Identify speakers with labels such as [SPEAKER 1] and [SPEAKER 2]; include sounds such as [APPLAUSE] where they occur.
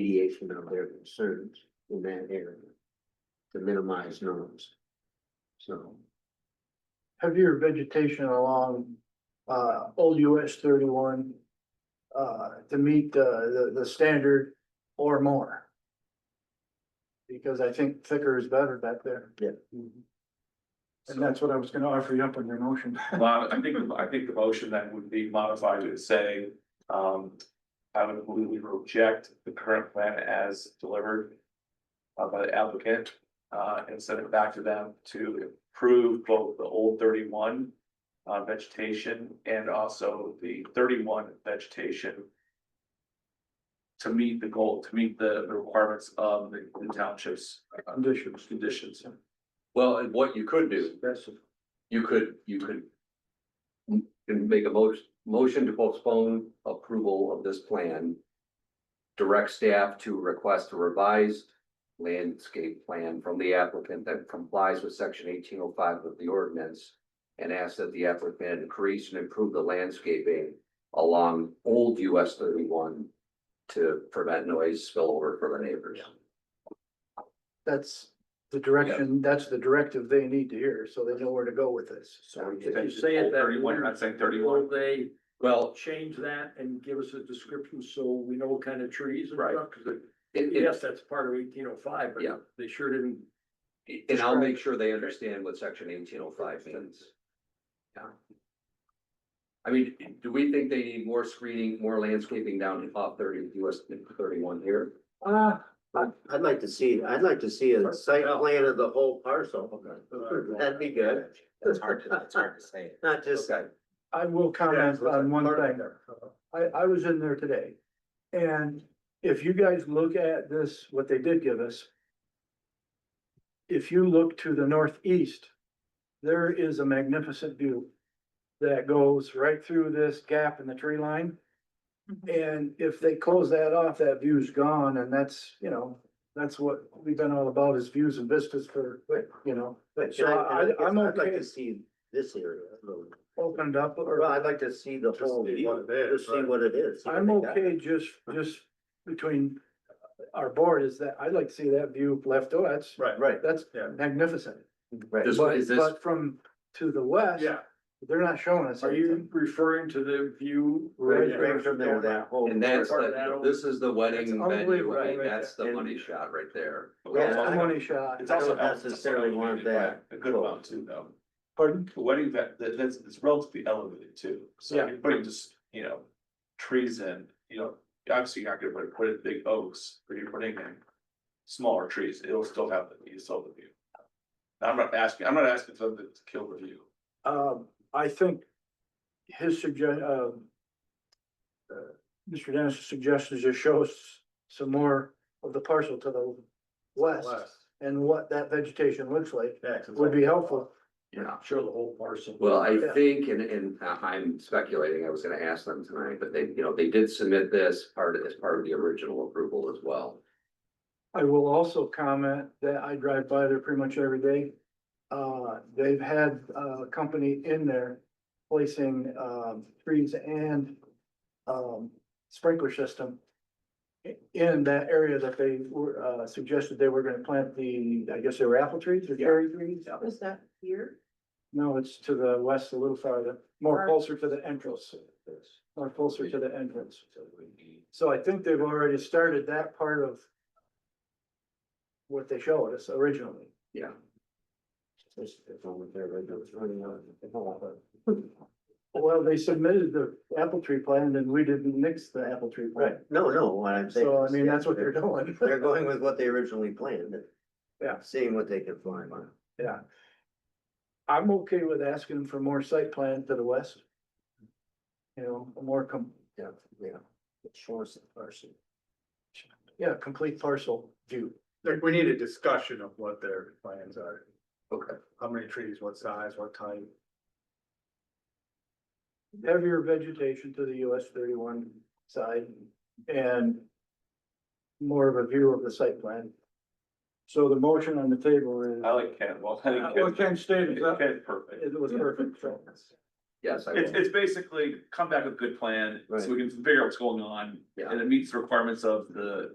[SPEAKER 1] remediation of their concerns in that area. To minimize noise. So,
[SPEAKER 2] heavier vegetation along uh old US thirty-one uh to meet the the the standard or more. Because I think thicker is better back there.
[SPEAKER 1] Yeah.
[SPEAKER 2] And that's what I was gonna offer you up on your motion.
[SPEAKER 3] Well, I think, I think the motion that would be modified to say, um, I would move we reject the current plan as delivered. uh, by the applicant, uh, and send it back to them to improve both the old thirty-one. Uh, vegetation and also the thirty-one vegetation. To meet the goal, to meet the, the requirements of the the township's. uh,
[SPEAKER 2] Conditions.
[SPEAKER 3] Conditions.
[SPEAKER 4] Well, and what you could do,
[SPEAKER 1] that's,
[SPEAKER 4] you could, you could. you Can make a motion, motion to postpone approval of this plan. Direct staff to request a revised landscape plan from the applicant that complies with section eighteen oh five of the ordinance. And ask that the applicant increase and improve the landscaping along old US thirty-one. To prevent noise spillover for the neighbors.
[SPEAKER 2] That's the direction, that's the directive they need to hear, so they know where to go with this.
[SPEAKER 1] so we
[SPEAKER 5] If
[SPEAKER 1] could-
[SPEAKER 5] you say it that.
[SPEAKER 3] Thirty-one, you're not saying
[SPEAKER 5] Will
[SPEAKER 3] thirty-one.
[SPEAKER 5] they
[SPEAKER 4] Well,
[SPEAKER 5] change that and give us a description so we know what kind of trees and
[SPEAKER 4] Right.
[SPEAKER 5] stuff? Cause it-
[SPEAKER 4] it, it,
[SPEAKER 5] yes, that's part of eighteen oh five, but
[SPEAKER 4] Yeah.
[SPEAKER 5] they sure didn't.
[SPEAKER 4] And I'll make sure they understand what section eighteen oh five means. Yeah. I mean, do we think they need more screening, more landscaping down in top thirty, US thirty-one here?
[SPEAKER 2] Uh,
[SPEAKER 1] I'd, I'd like to see, I'd like to see a site plan of the whole parcel. [LAUGHS] That'd be good.
[SPEAKER 6] That's hard to, it's hard to say.
[SPEAKER 1] [LAUGHS] Not just,
[SPEAKER 2] I will comment on one thing. I, I was in there today. And if you guys look at this, what they did give us. If you look to the northeast, there is a magnificent view that goes right through this gap in the tree line. And if they close that off, that view's gone and that's, you know, that's what we've been all about is views and vistas for, you know.
[SPEAKER 1] but
[SPEAKER 2] So
[SPEAKER 1] can I,
[SPEAKER 2] I, I'm
[SPEAKER 1] I'd like
[SPEAKER 2] okay,
[SPEAKER 1] to see this area. a little bit.
[SPEAKER 2] opened up or.
[SPEAKER 1] Well, I'd like to see the whole, one, just see what it is.
[SPEAKER 2] I'm okay, just, just between our board is that I'd like to see that view left, oh, that's,
[SPEAKER 1] Right,
[SPEAKER 2] that's
[SPEAKER 3] Yeah.
[SPEAKER 2] magnificent.
[SPEAKER 1] right.
[SPEAKER 4] This one
[SPEAKER 2] But,
[SPEAKER 4] is this,
[SPEAKER 2] but from to the west, they're not showing us.
[SPEAKER 5] Are you
[SPEAKER 2] anything.
[SPEAKER 5] referring to the view?
[SPEAKER 1] Right, right from there, that whole.
[SPEAKER 4] and that's,
[SPEAKER 5] Part of that
[SPEAKER 4] the- this is the
[SPEAKER 2] It's
[SPEAKER 4] wedding venue, I
[SPEAKER 2] unbelievable.
[SPEAKER 4] mean, that's the
[SPEAKER 1] And-
[SPEAKER 4] money shot right there.
[SPEAKER 1] Yeah.
[SPEAKER 2] That's a money shot.
[SPEAKER 3] It's also
[SPEAKER 1] I don't necessarily want that.
[SPEAKER 3] A good amount too, though.
[SPEAKER 2] Pardon?
[SPEAKER 3] The wedding that, that, that's, it's relatively elevated too, so
[SPEAKER 2] Yeah.
[SPEAKER 3] you're putting just, you know, trees in, you know, obviously you're not gonna put, put in big oaks, but you're putting in. Smaller trees, it'll still have, the you still have the view. I'm not asking, I'm not asking for them to kill the view.
[SPEAKER 2] Um, I think his suggestion, um. uh, Mr. Dennis's suggestion is just show us some more of the parcel to the west and what that vegetation looks like would be helpful.
[SPEAKER 4] Yeah.
[SPEAKER 5] Show the whole parcel.
[SPEAKER 4] Well, I
[SPEAKER 2] Yeah.
[SPEAKER 4] think, and, and uh, I'm speculating, I was gonna ask them tonight, but they, you know, they did submit this part of, as part of the original approval as well.
[SPEAKER 2] I will also comment that I drive by there pretty much every day. Uh, they've had a company in there placing, um, trees and, um, sprinkler system i- in that area that they were, uh, suggested they were gonna plant the, I guess they were apple trees or cherry trees?
[SPEAKER 6] Was that here?
[SPEAKER 2] No, it's to the west a little farther, more
[SPEAKER 6] Or-
[SPEAKER 2] closer to the entrance, more closer to the entrance. So I think they've already started that part of what they showed us originally. Well, they submitted the apple tree plan and we didn't mix the apple tree plan.
[SPEAKER 1] No, no, what I'm saying.
[SPEAKER 2] So I
[SPEAKER 1] is
[SPEAKER 2] mean, that's what they're
[SPEAKER 1] they're-
[SPEAKER 2] doing. [LAUGHS]
[SPEAKER 1] They're going with what they originally planned. and
[SPEAKER 2] Yeah.
[SPEAKER 1] Seeing what they can find on.
[SPEAKER 2] I'm okay with asking for more site plan to the west. You know, a more com-
[SPEAKER 1] Yeah, yeah. Shores of person.
[SPEAKER 2] yeah, complete parcel view.
[SPEAKER 7] Like, we need a discussion of what their plans are,
[SPEAKER 4] Okay.
[SPEAKER 7] how many trees, what size, what type.
[SPEAKER 2] heavier vegetation to the US thirty-one side and more of a view of the site plan. So the motion on the table is.
[SPEAKER 3] I like Ken, well, I think.
[SPEAKER 2] Uh, Well, Ken stated that.
[SPEAKER 3] Ken's perfect.
[SPEAKER 2] It was perfect. so.
[SPEAKER 4] Yes, I will.
[SPEAKER 3] It's, it's basically come back with a good plan, so we can figure out what's going on,
[SPEAKER 4] Yeah.
[SPEAKER 3] and it meets the requirements of the